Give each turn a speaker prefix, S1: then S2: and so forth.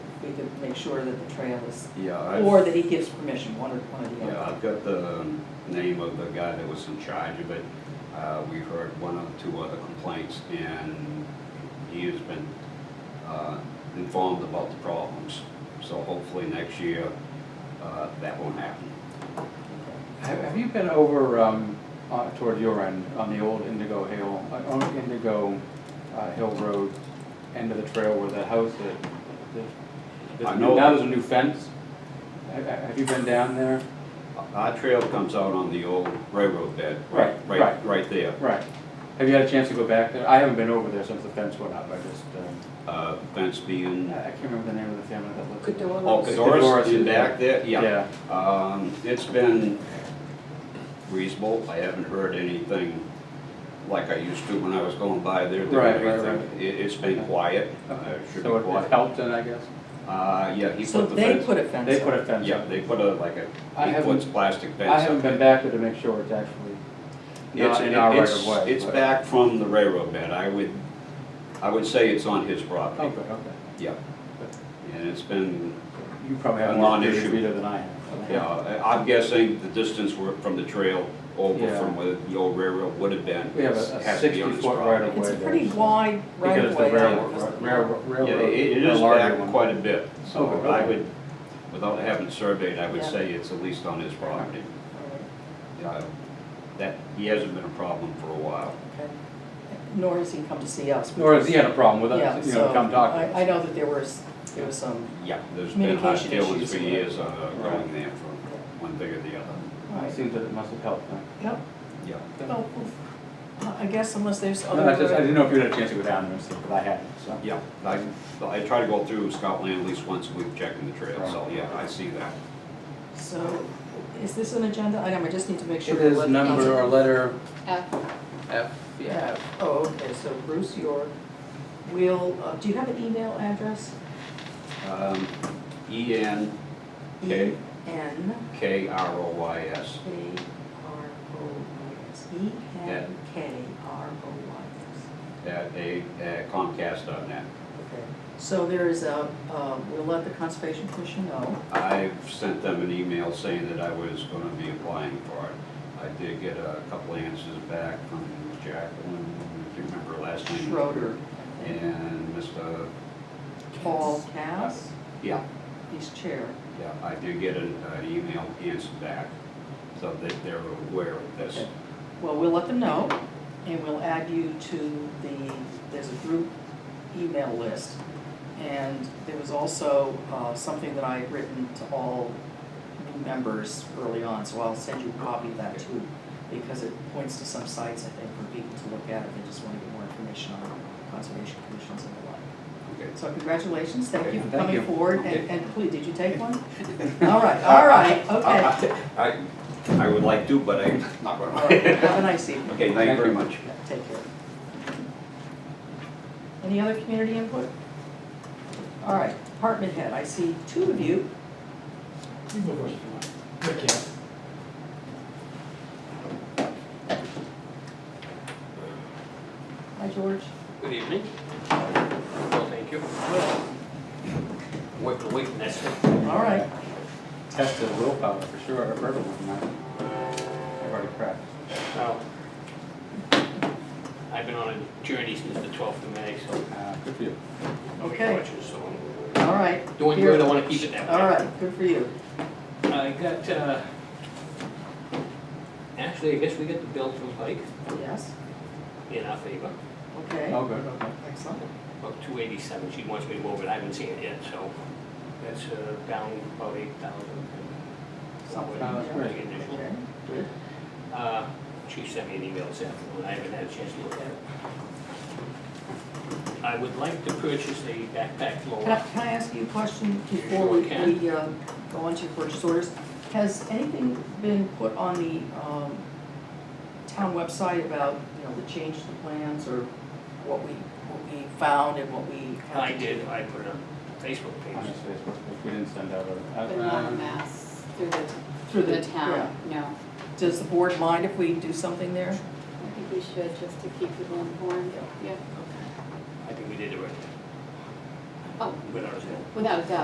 S1: we can make sure that the trail is,
S2: Yeah,
S1: or
S2: I've,
S1: that he gives permission, one or, one or the
S2: yeah,
S1: other.
S2: I've got the um, name of the guy that was in charge of it. Uh, we've heard one or two other complaints and he has been, uh, informed about the problems. So hopefully next year, uh, that won't happen.
S3: Have have you been over um, uh, toward your end on the old Indigo Hill, uh, on Indigo uh, Hill Road, end of the trail where that house, that, that-
S2: I
S3: that,
S2: know.
S3: new- now there's a new fence? Ha- ha- Have you been down there?
S2: Our trail comes out on the old railroad bed, right,
S3: Right,
S2: right,
S3: right.
S2: right there.
S3: Right. Have you had a chance to go back there? I haven't been over there since the fence went up, I just, um,
S2: Uh, fence being,
S3: I I can't remember the name of the family that lived. there.
S2: oh,
S3: It's the
S2: Doris
S3: Doris
S2: in
S3: in there.
S2: back there, Um, it's been reasonable, I haven't heard anything like I used to when I was going by there. There
S3: Right, right,
S2: anything.
S3: right.
S2: It, it's been quiet, uh, should be
S3: So it- it
S2: quiet.
S3: helped then, I guess?
S2: Uh, yeah, he
S1: So
S2: put the
S1: they
S2: fence.
S1: put a fence
S3: They put
S1: up.
S3: a fence
S2: Yeah,
S3: up.
S2: they put a, like a,
S3: I
S2: he puts
S3: haven't-
S2: plastic fence.
S3: I
S2: up
S3: haven't been
S2: there.
S3: back there to make sure it's actually
S2: It's-
S3: not in our right
S2: it's-
S3: of way.
S2: It's
S3: but-
S2: back from the railroad bed, I would, I would say it's on his
S3: Oh,
S2: property,
S3: good, okay.
S2: yeah. And it's been,
S3: You probably
S2: A
S3: have more
S2: non-issue.
S3: data reader than I have.
S2: you know, I- I'm guessing the distance were from the trail over
S3: Yeah.
S2: from where the old railroad would have been.
S3: We have a-
S2: has
S3: a
S2: to be on his
S3: 60-foot
S2: property.
S3: right of
S1: It's a
S3: way
S1: pretty
S3: there.
S1: wide right
S3: Because
S1: of
S3: the
S1: way.
S3: railroad, railroad, railroad.
S2: Yeah, it it is
S3: the larger
S2: back
S3: one.
S2: quite a bit,
S3: Oh,
S2: so
S3: really?
S2: I would, without having surveyed, I would
S1: Yeah.
S2: say it's at least on his property. Uh, That, he hasn't been a problem for a while.
S1: Okay. Nor has he come to see us.
S3: Nor has he had a problem with
S1: Yeah,
S3: us, you know,
S1: so
S3: come talk to
S1: I- I
S3: us.
S1: know that there was, there was some,
S2: Yeah, there's been hot
S1: Communication
S2: feelings
S1: issues.
S2: for years on uh,
S3: Right.
S2: going there for one thing or the other.
S1: all
S3: It
S1: right,
S3: seems that it must have helped then.
S1: yep,
S2: Yeah.
S1: well, I guess unless there's
S3: No, I just, I
S1: other,
S3: didn't know if you had a chance to go down there and see, but I hadn't, so.
S2: Yeah, I, I try to go through Scotland at least once a week checking the trail, so yeah, I see that.
S1: so, is this an agenda item, I just need to make sure.
S3: It is
S1: what-
S3: number or letter
S4: F,
S3: F, yeah, F.
S1: Oh, okay, so Bruce York will, uh, do you have an email address?
S2: Um, E N K
S1: N
S2: K R O Y S.
S1: K R O Y S, E N K R O Y S.
S2: at a at Comcast.net.
S1: Okay, so there is a, uh, we'll let the Conservation Commission know.
S2: I've sent them an email saying that I was gonna be applying for it. I did get a couple answers back from Jacqueline, if you remember her last
S1: Mm-hmm.
S2: name.
S1: Schroeder, I think.
S2: And Mr.,
S1: Paul Cass,
S2: yeah,
S1: he's chair.
S2: yeah, I did get an, an email answer back, so that they're aware of this.
S1: Okay. Well, we'll let them know, and we'll add you to the, there's a group email list. And there was also uh, something that I had written to all new members early on, so I'll send you a copy of that too, because it points to some sites, I think, for people to look at if they just want to get more information on conservation commissions and the like.
S2: Okay.
S1: So congratulations, thank you for
S3: Thank you.
S1: coming forward, and,
S2: Okay.
S1: and please, did you take one? All right, all right, okay.
S2: I, I would like to, but I'm not
S1: All right, Have a
S2: gonna.
S1: nice evening.
S2: Okay, thank you very much.
S1: Yeah, Take care. Any other community input? All right, department head, I see two of you.
S5: You go first if you want. Rick, yeah.
S1: Hi, George.
S6: Good evening. Well, thank you. Work the week, that's it.
S1: All right,
S3: Tested willpower for sure, I've heard of one, I- I've already cracked.
S6: So, I've been on a journey since the 12th of May, so
S3: Uh, Good for you.
S6: no
S1: Okay.
S6: recollections, so I'm
S1: all right.
S6: doing
S1: Here.
S6: good, I want to keep it that way.
S1: All right, good for you.
S6: I got, uh, actually, I guess we got the bill from Pike
S1: Yes,
S6: in our favor,
S1: okay,
S3: Oh, good, okay.
S1: excellent.
S6: about 287. She wants me to move it, I haven't seen it yet, so that's uh, down about 8,000.
S1: Something,
S3: Oh, that's
S1: yeah.
S3: great.
S6: Initial.
S1: Okay, good.
S6: Uh, Chief sent me an email this afternoon, I haven't had a chance to look at it. I would like to purchase a backpack
S1: Can I,
S6: blower.
S1: can I ask you a question before we,
S6: Sure can.
S1: we, um, go on to your purchase orders? Has anything been put on the, um, town website about, you know, the change to the plans or what we, what we found and what we have
S6: I
S1: to do?
S6: did, I put it on the Facebook
S3: On
S6: page.
S3: his Facebook, if we didn't send out a. uh,
S4: but not a mass through the,
S1: Through
S4: through
S1: the-
S4: the town, no.
S1: Does the board mind if we do something there?
S4: I think we should, just to keep people informed, yeah,
S6: I think we did it right,
S4: oh,
S6: without a doubt.
S4: without a doubt.